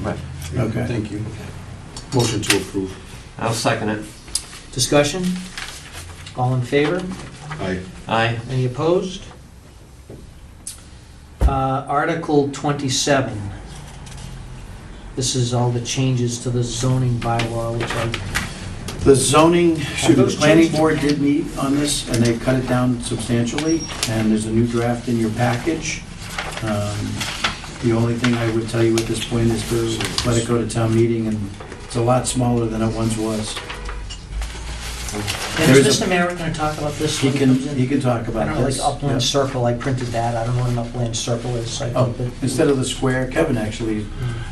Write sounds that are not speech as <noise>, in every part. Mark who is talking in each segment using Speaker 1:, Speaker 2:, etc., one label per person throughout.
Speaker 1: Right.
Speaker 2: Okay.
Speaker 1: Thank you. Motion to approve.
Speaker 3: I'll second it.
Speaker 4: Discussion? All in favor?
Speaker 1: Aye.
Speaker 3: Aye.
Speaker 4: Any opposed? Uh, Article 27. This is all the changes to the zoning bylaw, which I,
Speaker 2: The zoning, shoot, the
Speaker 4: those
Speaker 2: planning
Speaker 4: changed?
Speaker 2: board did meet on this, and they cut it down substantially, and there's a new draft in your package. Um, The only thing I would tell you at this point is to let it go to town meeting, and it's a lot smaller than it once was.
Speaker 4: and is
Speaker 2: There's
Speaker 4: Mr. Merrick going to talk about this
Speaker 2: He
Speaker 4: when he
Speaker 2: can,
Speaker 4: comes
Speaker 2: he
Speaker 4: in?
Speaker 2: can talk
Speaker 4: I
Speaker 2: about
Speaker 4: don't know,
Speaker 2: this.
Speaker 4: like Upland
Speaker 2: Yeah.
Speaker 4: Circle, I printed that, I don't know what an upland circle is, I
Speaker 2: Oh,
Speaker 4: think that... Hmm,
Speaker 2: Instead of the square, Kevin actually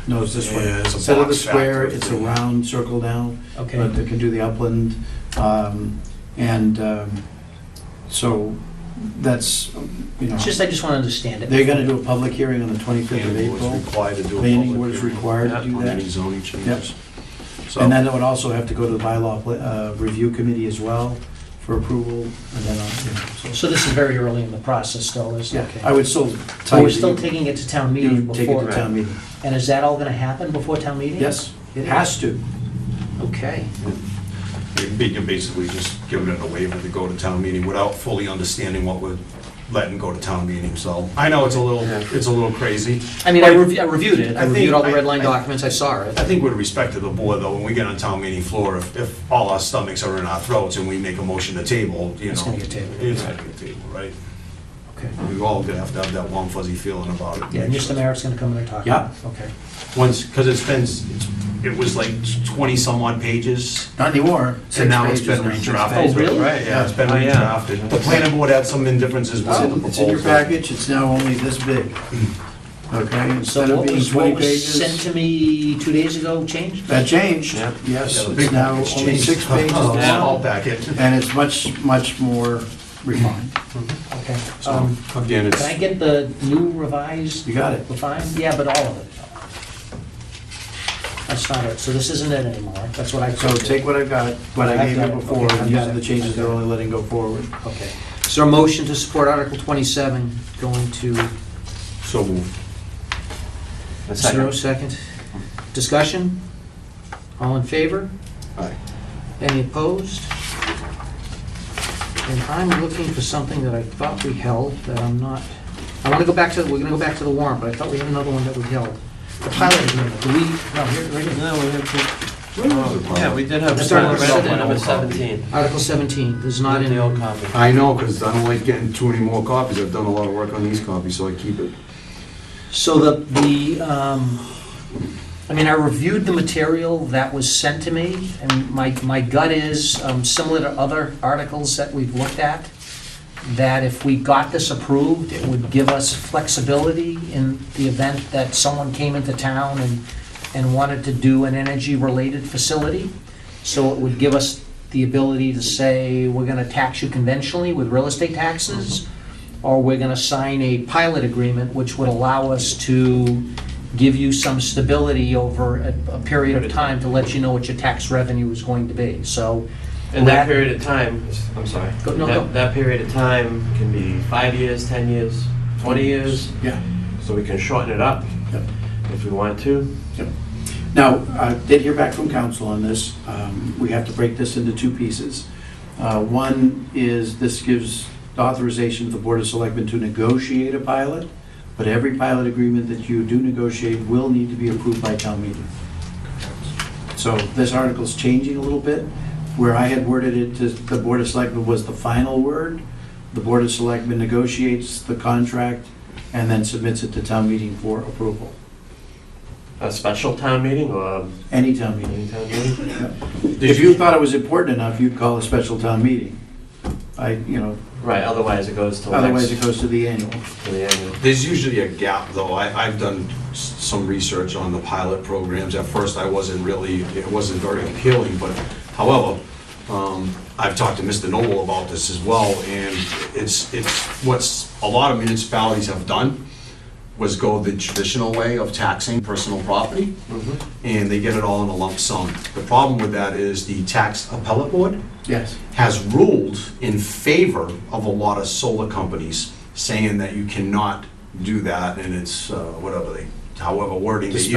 Speaker 2: knows this one.
Speaker 5: Yeah, it's a
Speaker 2: Instead of the
Speaker 5: box
Speaker 2: square,
Speaker 5: factor.
Speaker 2: it's a round circle now.
Speaker 4: Okay,
Speaker 2: but they can do the upland. um, And um, so that's, you know,
Speaker 4: it's just, I just want to understand it.
Speaker 2: they're going to do a public hearing on the 25th of April.
Speaker 1: Planning board's required to do a
Speaker 2: Planning board
Speaker 1: public
Speaker 2: is
Speaker 1: hearing
Speaker 2: required to
Speaker 3: Yeah,
Speaker 2: do
Speaker 1: on any
Speaker 2: that.
Speaker 1: zoning changes. So,
Speaker 2: And then it would also have to go to the bylaw pla- uh, review committee as well for approval. And then, uh, you know, so-
Speaker 4: So this is very early in the process still, is,
Speaker 2: yeah,
Speaker 4: okay.
Speaker 2: I would still
Speaker 4: So
Speaker 2: tell you.
Speaker 4: we're still
Speaker 2: that
Speaker 4: taking it to town
Speaker 2: you
Speaker 4: meeting
Speaker 2: Take it
Speaker 4: before,
Speaker 2: to town meeting.
Speaker 4: and is that all going to happen before town meeting?
Speaker 2: Yes, it has to.
Speaker 4: Okay.
Speaker 5: You're ba- You're basically just giving it a waiver to go to town meeting without fully understanding what we're letting go to town meeting, so. I know it's a little, it's a little crazy.
Speaker 4: I mean, I
Speaker 5: But
Speaker 4: rev- I reviewed it, I
Speaker 5: I think-
Speaker 4: reviewed all the
Speaker 5: I-
Speaker 4: red line
Speaker 5: I-
Speaker 4: documents, I saw it.
Speaker 5: I think with respect to the board, though, when we get on town meeting floor, if, if all our stomachs are in our throats and we make a motion to table, you know.
Speaker 4: It's gonna get tabled.
Speaker 5: It's gonna get tabled, right?
Speaker 4: Okay.
Speaker 5: We all gonna have to have that warm fuzzy feeling about it.
Speaker 4: Yeah, Mr. Merritt's gonna come in and talk.
Speaker 5: Yeah.
Speaker 4: Okay.
Speaker 5: Once, because it's been, s- it's- it was like twenty-some odd pages.
Speaker 2: Not anymore.
Speaker 5: And now it's
Speaker 2: Six
Speaker 5: been
Speaker 2: pages now.
Speaker 5: redrafted.
Speaker 4: Oh, really?
Speaker 5: Right, yeah, it's been
Speaker 3: Oh, yeah.
Speaker 5: redrafted. The planning board had some indifferences
Speaker 2: Oh,
Speaker 5: with
Speaker 2: It's
Speaker 5: the
Speaker 2: in-
Speaker 4: Oh.
Speaker 5: proposal.
Speaker 2: It's in your package, it's now only this big. Okay, instead
Speaker 4: So
Speaker 2: of
Speaker 4: what
Speaker 2: being
Speaker 4: was, what
Speaker 2: 20
Speaker 4: was sent
Speaker 2: pages.
Speaker 4: to me two days ago changed?
Speaker 2: That changed,
Speaker 3: Yeah.
Speaker 2: yes,
Speaker 5: Yeah, the
Speaker 2: it's
Speaker 5: big
Speaker 2: now
Speaker 5: package
Speaker 2: only
Speaker 5: changed. <laughs>
Speaker 2: six pages
Speaker 5: Oh, All
Speaker 2: long,
Speaker 5: packet.
Speaker 2: and it's much, much more refined.
Speaker 4: Okay.
Speaker 5: So,
Speaker 4: Um,
Speaker 5: Again, it's,
Speaker 4: Can I get the new revised,
Speaker 2: You got it.
Speaker 4: refined? Yeah, but all of it. That's not it, so this isn't it anymore, that's what I.
Speaker 2: So take what I've got, what I gave
Speaker 4: I've
Speaker 2: you
Speaker 4: got it.
Speaker 2: before,
Speaker 4: Okay, I've
Speaker 2: and these
Speaker 4: got
Speaker 2: are
Speaker 4: it.
Speaker 2: the changes they're only letting go forward.
Speaker 4: Okay. Is there a motion to support Article twenty-seven going to
Speaker 5: so moved.
Speaker 3: A
Speaker 4: Zero
Speaker 3: second.
Speaker 4: second. Discussion? All in favor?
Speaker 1: Aye.
Speaker 4: Any opposed? And I'm looking for something that I thought we held that I'm not, I want to go back to, we're going to go back to the warrant, but I thought we had another one that we held. The pilot agreement, do we, no, here, right here.
Speaker 3: No, we have to, yeah, we did have.
Speaker 4: Let's start with
Speaker 3: Number
Speaker 4: the-
Speaker 3: number seventeen.
Speaker 4: Article 17, there's not in
Speaker 3: The old
Speaker 4: the
Speaker 3: copy.
Speaker 1: I know, because I don't like getting too many more copies. I've done a lot of work on these copies, so I keep it.
Speaker 4: So the, the, um, I mean, I reviewed the material that was sent to me, and my, my gut is, um, similar to other articles that we've looked at, that if we got this approved, it would give us flexibility in the event that someone came into town and, and wanted to do an energy-related facility. So it would give us the ability to say, we're gonna tax you conventionally with real estate taxes, or we're gonna sign a pilot agreement, which would allow us to give you some stability over a, a period of time to let you know what your tax revenue is going to be, so.
Speaker 3: And that period of time, I'm sorry.
Speaker 4: Go- no, go.
Speaker 3: That, that period of time can be five years, 10 years, 20 years,
Speaker 2: Yeah.
Speaker 3: so we can shorten it up
Speaker 2: Yep.
Speaker 3: if we want to.
Speaker 2: Now, I did hear back from council on this. Um, We have to break this into two pieces. Uh, One is this gives authorization to the Board of Selectmen to negotiate a pilot, but every pilot agreement that you do negotiate will need to be approved by town meeting. So this article's changing a little bit. Where I had worded it to the Board of Selectmen was the final word. The Board of Selectmen negotiates the contract and then submits it to town meeting for approval.
Speaker 3: A special town meeting or
Speaker 2: Any town
Speaker 3: a
Speaker 2: meeting.
Speaker 3: meeting town meeting?
Speaker 2: If you thought it was important enough, you'd call a special town meeting. I, you know,
Speaker 3: Right, otherwise it goes to
Speaker 2: otherwise
Speaker 3: next,
Speaker 2: it goes to the annual.
Speaker 3: to the annual.
Speaker 5: There's usually a gap, though. I, I've done s- some research on the pilot programs. At first, I wasn't really, it wasn't very appealing, but however, um, I've talked to Mr. Noble about this as well, and it's, it's what's, a lot of municipalities have done was go the traditional way of taxing personal property, and they get it all in a lump sum. The problem with that is the tax appellate board
Speaker 2: Yes.
Speaker 5: has ruled in favor of a lot of solar companies, saying that you cannot do that, and it's uh, whatever they, however wording they use.